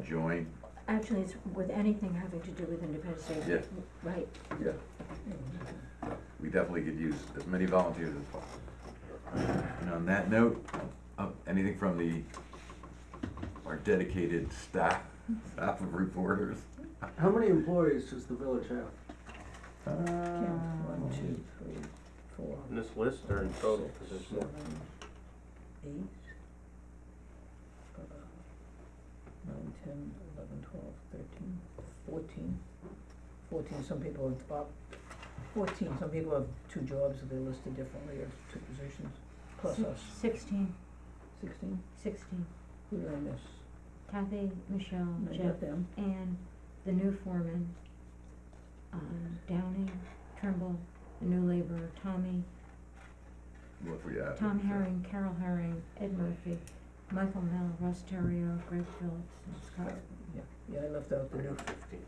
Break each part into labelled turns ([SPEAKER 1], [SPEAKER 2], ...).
[SPEAKER 1] joint,
[SPEAKER 2] Actually, it's with anything having to do with Independence Day.
[SPEAKER 1] Yeah.
[SPEAKER 2] Right,
[SPEAKER 1] yeah. We definitely could use as many volunteers as possible. And on that note, uh, anything from the, our dedicated staff, staff of reporters?
[SPEAKER 3] How many employees does the village have?
[SPEAKER 1] Uh,
[SPEAKER 4] One, two, three, four,
[SPEAKER 5] In this list or in total, because
[SPEAKER 4] six,
[SPEAKER 5] there's more.
[SPEAKER 4] seven, eight. uh, Nine, ten, eleven, twelve, thirteen, fourteen. Fourteen, some people have, about fourteen, some people have two jobs, they're listed differently, or two positions, plus us,
[SPEAKER 2] sixteen,
[SPEAKER 4] sixteen,
[SPEAKER 2] sixteen.
[SPEAKER 4] who did I miss?
[SPEAKER 2] Kathy, Michelle,
[SPEAKER 4] I
[SPEAKER 2] Jeff,
[SPEAKER 4] got them,
[SPEAKER 2] and the new foreman, um, Downey, Trimble, the new laborer, Tommy,
[SPEAKER 1] What we have.
[SPEAKER 2] Tom Herring, Carol Herring, Ed Murphy, Michael Mel, Russ Terrio, Greg Phillips, and Scott.
[SPEAKER 4] yeah, yeah, I left out the
[SPEAKER 5] I
[SPEAKER 4] new,
[SPEAKER 5] got fifteen.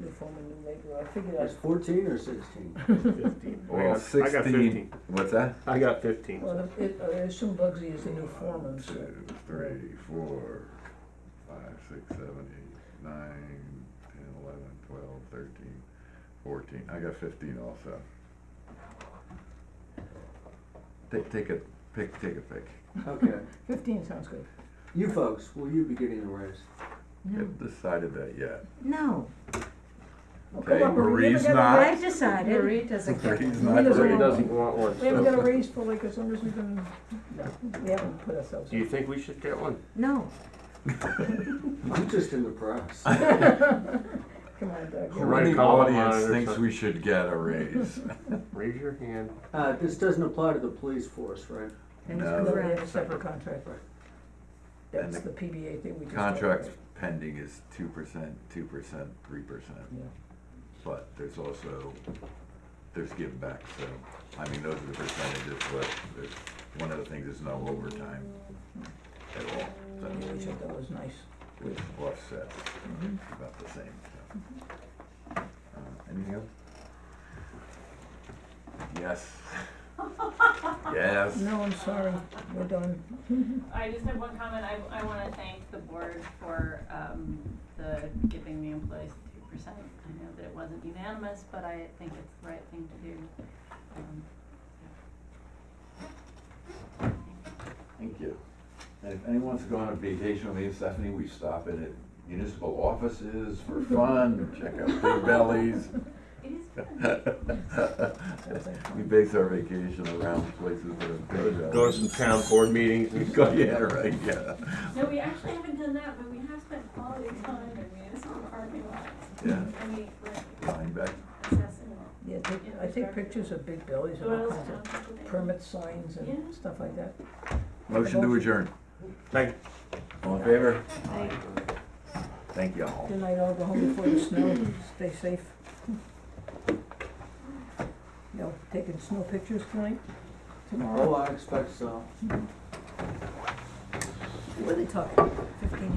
[SPEAKER 4] new foreman, new laborer, I figured
[SPEAKER 3] It's
[SPEAKER 4] I,
[SPEAKER 3] fourteen or sixteen?
[SPEAKER 5] Fifteen. I
[SPEAKER 1] Well,
[SPEAKER 5] got- I got
[SPEAKER 1] sixteen,
[SPEAKER 5] fifteen.
[SPEAKER 1] what's that?
[SPEAKER 5] I got fifteen.
[SPEAKER 4] well, if it, I assume Bugsy is the new foreman, so.
[SPEAKER 1] Two, three, four, five, six, seven, eight, nine, ten, eleven, twelve, thirteen, fourteen, I got fifteen also. Take, take a, pick, take a pick.
[SPEAKER 3] Okay.
[SPEAKER 4] Fifteen sounds good.
[SPEAKER 3] You folks, will you be getting a raise?
[SPEAKER 2] No,
[SPEAKER 1] Haven't decided that yet.
[SPEAKER 2] no,
[SPEAKER 4] Well,
[SPEAKER 1] Okay,
[SPEAKER 4] come on, but we
[SPEAKER 1] Marie's
[SPEAKER 4] haven't got a
[SPEAKER 1] not-
[SPEAKER 4] raise-
[SPEAKER 2] I've decided,
[SPEAKER 6] Marie doesn't get
[SPEAKER 1] He's
[SPEAKER 4] He
[SPEAKER 1] not
[SPEAKER 4] doesn't
[SPEAKER 1] ready.
[SPEAKER 5] Somebody
[SPEAKER 4] want
[SPEAKER 5] doesn't want one,
[SPEAKER 4] We haven't got a
[SPEAKER 5] so.
[SPEAKER 4] raise for like as long as we've been, no, we haven't put ourselves
[SPEAKER 5] Do you
[SPEAKER 4] in.
[SPEAKER 5] think we should get one?
[SPEAKER 2] no,
[SPEAKER 3] I'm just in the press.
[SPEAKER 4] Come on, Doug.
[SPEAKER 1] Who
[SPEAKER 4] you're-
[SPEAKER 5] Right.
[SPEAKER 1] in the
[SPEAKER 5] column on
[SPEAKER 1] audience
[SPEAKER 5] it or
[SPEAKER 1] thinks
[SPEAKER 5] something.
[SPEAKER 1] we should get a raise?
[SPEAKER 5] Raise your hand.
[SPEAKER 3] Uh, this doesn't apply to the police force, right?
[SPEAKER 4] And it's
[SPEAKER 1] No.
[SPEAKER 4] because we have a separate contract,
[SPEAKER 3] Right.
[SPEAKER 1] And
[SPEAKER 4] that's
[SPEAKER 1] the
[SPEAKER 4] the PBA thing we just. talked
[SPEAKER 1] Contract
[SPEAKER 4] about.
[SPEAKER 1] pending is two percent, two percent, three percent,
[SPEAKER 4] Yeah.
[SPEAKER 1] but there's also, there's give back, so, I mean, those are the percentages, but there's, one of the things is no overtime at all, so
[SPEAKER 4] Yeah, we thought that was nice.
[SPEAKER 1] with offset,
[SPEAKER 4] Mhm.
[SPEAKER 1] about the same, so. Uh, anything else? Yes. Yes.
[SPEAKER 4] No, I'm sorry, we're done.
[SPEAKER 6] I just have one comment, I, I wanna thank the board for, um, the giving the employees the two percent. I know that it wasn't unanimous, but I think it's the right thing to do. Um,
[SPEAKER 1] Thank you. And if anyone's going on vacation with me and Stephanie, we stop in at municipal offices for fun, check out big bellies.
[SPEAKER 6] It is fun.
[SPEAKER 4] Sounds like fun.
[SPEAKER 1] We base our vacation around places that are big.
[SPEAKER 5] Go to some town board meetings and
[SPEAKER 1] Go- Yeah, right, yeah,
[SPEAKER 6] No, we actually haven't done that, but we have spent quality time in municipal parking lots.
[SPEAKER 1] yeah.
[SPEAKER 6] And we, we're
[SPEAKER 1] Linebacker.
[SPEAKER 6] assessing
[SPEAKER 4] Yeah, take, I take pictures of big bellies and
[SPEAKER 6] what
[SPEAKER 4] all
[SPEAKER 6] else
[SPEAKER 4] kinds of
[SPEAKER 6] town people
[SPEAKER 4] permit signs
[SPEAKER 6] Yeah.
[SPEAKER 4] and stuff like that.
[SPEAKER 1] Motion to adjourn.
[SPEAKER 5] Second.
[SPEAKER 1] All in favor? Thank you all.
[SPEAKER 4] Good night, all, go home before the snow, stay safe. No, taking snow pictures tonight, tomorrow?
[SPEAKER 3] Oh, I expect so.
[SPEAKER 4] What are they talking, fifteen